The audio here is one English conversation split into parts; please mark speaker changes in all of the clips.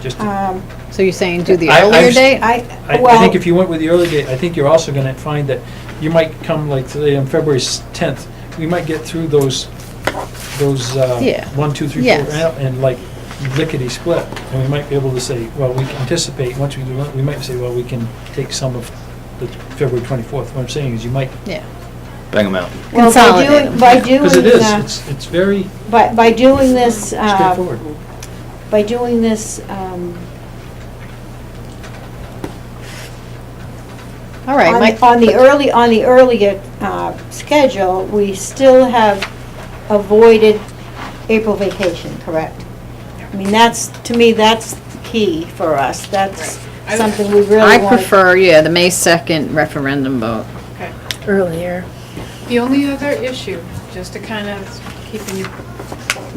Speaker 1: just, to-
Speaker 2: Um,
Speaker 3: So you're saying do the
Speaker 1: I- I
Speaker 3: earlier
Speaker 1: was-
Speaker 3: date?
Speaker 2: I,
Speaker 1: I, I
Speaker 2: well,
Speaker 1: think if you went with the early date, I think you're also gonna find that you might come like today on February tenth, we might get through those, those,
Speaker 3: Yeah.
Speaker 1: uh, one, two, three, four,
Speaker 3: Yes.
Speaker 1: and and like lickety split. And we might be able to say, well, we can anticipate, once we do, that, we might say, well, we can take some of the February twenty-fourth. What I'm saying is you might,
Speaker 3: Yeah.
Speaker 4: Bang them out.
Speaker 2: well, by
Speaker 3: consolidate
Speaker 2: doing,
Speaker 3: them.
Speaker 2: by doing,
Speaker 1: because it is,
Speaker 2: uh,
Speaker 1: it's, it's very
Speaker 2: by, by doing this, uh,
Speaker 1: straightforward.
Speaker 2: by doing this, um,
Speaker 3: All right,
Speaker 2: on-
Speaker 3: Mike,
Speaker 2: On the early, on the earlier uh, schedule, we still have avoided April vacation, correct? I mean, that's, to me, that's key for us. That's
Speaker 5: Right. I-
Speaker 2: something we really
Speaker 3: I
Speaker 2: want.
Speaker 3: prefer, yeah, the May 2nd referendum vote.
Speaker 5: Okay.
Speaker 6: earlier.
Speaker 5: The only other issue, just to kind of keep in your,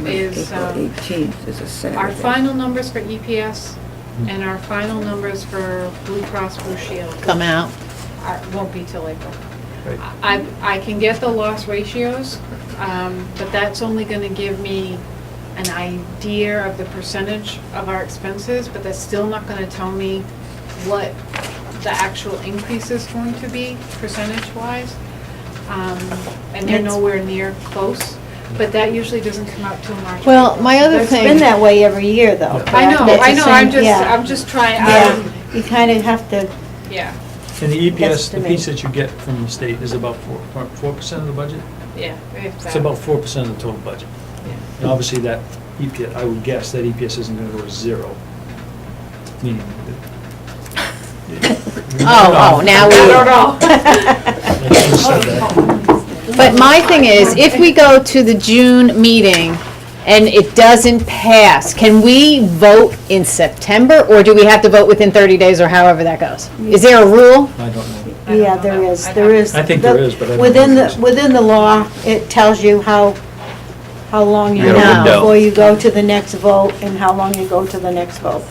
Speaker 5: is um,
Speaker 7: April 18th is a Saturday.
Speaker 5: our final numbers for EPS and our final numbers for Blue Cross Blue Shield.
Speaker 3: Come out.
Speaker 5: are- Won't be till April.
Speaker 1: Right.
Speaker 5: I, I can get the loss ratios, um, but that's only going to give me an idea of the percentage of our expenses, but that's still not going to tell me what the actual increase is going to be percentage-wise. Um, And they're
Speaker 2: That's-
Speaker 5: nowhere near close, but that usually doesn't come out till March.
Speaker 3: Well,
Speaker 5: April.
Speaker 3: my other
Speaker 5: That's-
Speaker 3: thing-
Speaker 2: It's been that way every year, though.
Speaker 5: I know,
Speaker 2: correct?
Speaker 5: I know, I'm
Speaker 2: It's the
Speaker 5: just,
Speaker 2: same- yeah,
Speaker 5: I'm just trying, um,
Speaker 2: Yeah, you kind of have to,
Speaker 5: yeah,
Speaker 1: And the EPS,
Speaker 2: That's to
Speaker 1: the
Speaker 2: me.
Speaker 1: piece that you get from the state is about four, point four percent of the budget?
Speaker 5: yeah. if
Speaker 1: It's
Speaker 5: that-
Speaker 1: about four percent of the total budget.
Speaker 5: Yeah.
Speaker 1: And obviously, that EPS, I would guess that EPS isn't gonna go to zero, meaning that.
Speaker 3: Oh, oh, now we. Oh,
Speaker 1: Like you said that.
Speaker 3: But my thing is, if we go to the June meeting and it doesn't pass, can we vote in September? Or do we have to vote within 30 days or however that goes? Is there a rule?
Speaker 1: I don't know.
Speaker 5: I don't
Speaker 2: yeah,
Speaker 5: know
Speaker 2: there
Speaker 5: that.
Speaker 2: is,
Speaker 5: I'd
Speaker 2: there
Speaker 5: have to-
Speaker 2: is.
Speaker 1: I think
Speaker 2: the-
Speaker 1: there is, but I don't know
Speaker 2: Within
Speaker 1: if
Speaker 2: the,
Speaker 1: it's-
Speaker 2: within the law, it tells you how, how long
Speaker 4: You
Speaker 2: you
Speaker 4: got a
Speaker 2: have
Speaker 4: window.
Speaker 2: before you go to the next vote and how long you go to the next vote.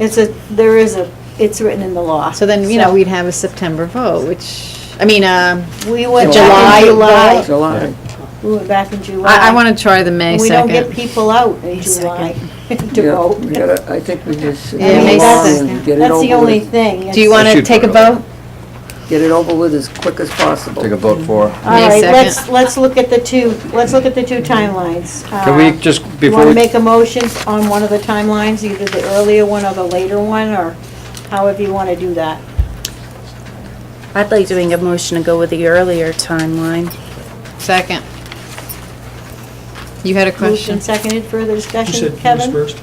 Speaker 2: It's a, there is a, it's written in the law.
Speaker 3: So then, you know, we'd have a September vote, which, I mean, um,
Speaker 2: We went back
Speaker 3: July
Speaker 2: in July.
Speaker 3: vote.
Speaker 7: July.
Speaker 2: We went back in July.
Speaker 3: I, I want to try the May
Speaker 2: We don't get
Speaker 3: 2nd.
Speaker 2: people out in July to
Speaker 7: Yeah,
Speaker 2: vote.
Speaker 7: we gotta- I think we just sit
Speaker 3: Yeah, it
Speaker 7: down
Speaker 3: makes
Speaker 2: sense.
Speaker 7: and get it
Speaker 2: That's the
Speaker 7: over
Speaker 2: only
Speaker 7: with,
Speaker 2: thing.
Speaker 3: Do you want to
Speaker 4: should
Speaker 3: take a
Speaker 4: vote early.
Speaker 3: vote?
Speaker 7: get it over with as quick as possible.
Speaker 4: Take a vote for.
Speaker 3: Mm-hmm.
Speaker 2: All right,
Speaker 3: May
Speaker 2: let's,
Speaker 3: second.
Speaker 2: let's look at the two, let's look at the two timelines.
Speaker 4: Can
Speaker 2: Uh,
Speaker 4: we just,
Speaker 2: You
Speaker 4: before,
Speaker 2: want to
Speaker 4: we
Speaker 2: make a motion on one of the timelines, either the earlier one or the later one, or however you want to do that?
Speaker 6: I'd like to make a motion to go with the earlier timeline.
Speaker 3: Second. You had a
Speaker 2: Moved
Speaker 3: question?
Speaker 2: and seconded, further
Speaker 1: You
Speaker 2: discussion?
Speaker 1: said who's
Speaker 2: Kevin,
Speaker 1: first?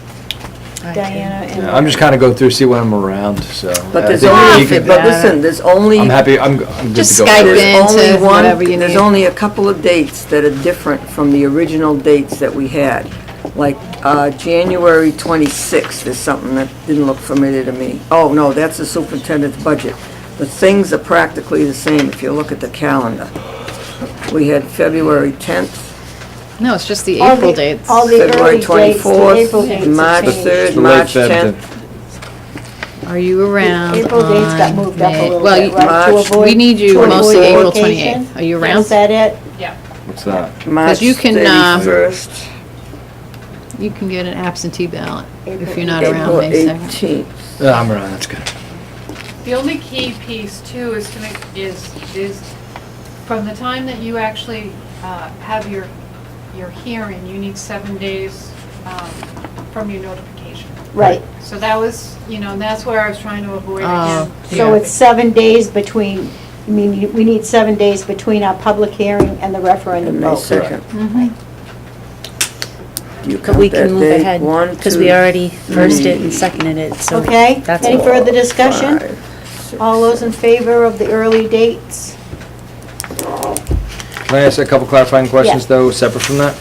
Speaker 2: Diana, and...
Speaker 4: I'm just kinda go through, see when I'm around, so.
Speaker 7: But
Speaker 4: I
Speaker 7: there's
Speaker 4: think
Speaker 3: only
Speaker 4: you
Speaker 7: only,
Speaker 4: could-
Speaker 3: fit
Speaker 7: but listen, there's only.
Speaker 4: I'm happy, I'm, I'm good
Speaker 3: Just
Speaker 4: to go.
Speaker 3: Skype
Speaker 4: early.
Speaker 3: in.
Speaker 7: There's
Speaker 3: into
Speaker 7: only one,
Speaker 3: whatever you
Speaker 7: there's
Speaker 3: need.
Speaker 7: only a couple of dates that are different from the original dates that we had. Like, uh, January 26th is something that didn't look familiar to me. Oh, no, that's the superintendent's budget. The things are practically the same if you look at the calendar. We had February 10th,
Speaker 3: No, it's just the
Speaker 2: All
Speaker 3: April
Speaker 2: the-
Speaker 3: dates.
Speaker 2: All the
Speaker 7: February
Speaker 2: early dates, the April
Speaker 7: 24th,
Speaker 2: dates
Speaker 7: March
Speaker 2: have
Speaker 7: 3rd,
Speaker 2: changed.
Speaker 4: The late
Speaker 7: March 10th.
Speaker 4: 10th.
Speaker 3: Are you around
Speaker 2: April dates got
Speaker 3: on
Speaker 2: moved up a
Speaker 3: May-
Speaker 2: little
Speaker 3: well,
Speaker 2: bit,
Speaker 3: you-
Speaker 2: right? to
Speaker 7: March-
Speaker 2: avoid-
Speaker 3: We need you
Speaker 2: to avoid
Speaker 3: mostly April
Speaker 2: vacation.
Speaker 3: 28th. Are you
Speaker 2: Is
Speaker 3: around?
Speaker 2: that it?
Speaker 5: Yeah.
Speaker 4: What's that?
Speaker 7: March
Speaker 3: you can, uh,
Speaker 7: 31st,
Speaker 3: You can get an absentee ballot if
Speaker 2: April-
Speaker 3: you're not around
Speaker 7: April
Speaker 3: May 2nd.
Speaker 7: 18th.
Speaker 4: Yeah, I'm around, that's good.
Speaker 5: The only key piece too is to make, is, is from the time that you actually uh, have your, your hearing, you need seven days um, from your notification.
Speaker 2: Right,
Speaker 5: So that was, you know, and that's where I was trying to avoid
Speaker 3: Oh,
Speaker 5: again.
Speaker 2: so it's seven days between, I mean, you- we need seven days between our public hearing and the referendum
Speaker 7: And May
Speaker 2: vote.
Speaker 7: 2nd.
Speaker 3: Mm-hmm.
Speaker 7: You
Speaker 6: But we
Speaker 7: count that
Speaker 6: can move
Speaker 7: date,
Speaker 6: ahead,
Speaker 7: one,
Speaker 6: because
Speaker 7: two,
Speaker 6: we already first it and seconded it, so.
Speaker 2: Okay,
Speaker 6: that's
Speaker 2: any
Speaker 6: all.
Speaker 2: further discussion?
Speaker 7: five, six,
Speaker 2: All those in favor of the early dates?
Speaker 4: Can I ask a couple clarifying questions, though, separate from that?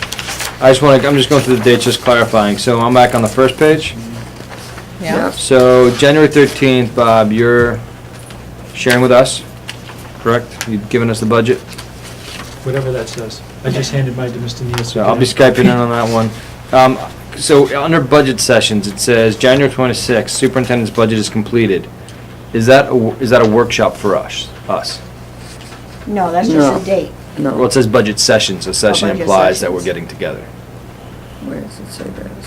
Speaker 4: I just wanna, I'm just going through the dates, just clarifying. So I'm back on the first page.
Speaker 7: yeah.
Speaker 4: So January 13th, Bob, you're sharing with us, correct? You've given us the budget?
Speaker 1: Whatever that says. I just handed mine to Mr. Nielsen.
Speaker 4: So I'll be Skyping in on that one. Um, So under budget sessions, it says January 26th, superintendent's budget is completed. Is that, a wo- is that a workshop for us? Us?
Speaker 2: No, that's just
Speaker 7: No.
Speaker 2: a date.
Speaker 4: Well,
Speaker 7: No,
Speaker 4: it says budget session, so session
Speaker 7: budget
Speaker 4: implies that
Speaker 7: sessions.
Speaker 4: we're getting together.
Speaker 7: where does it say that?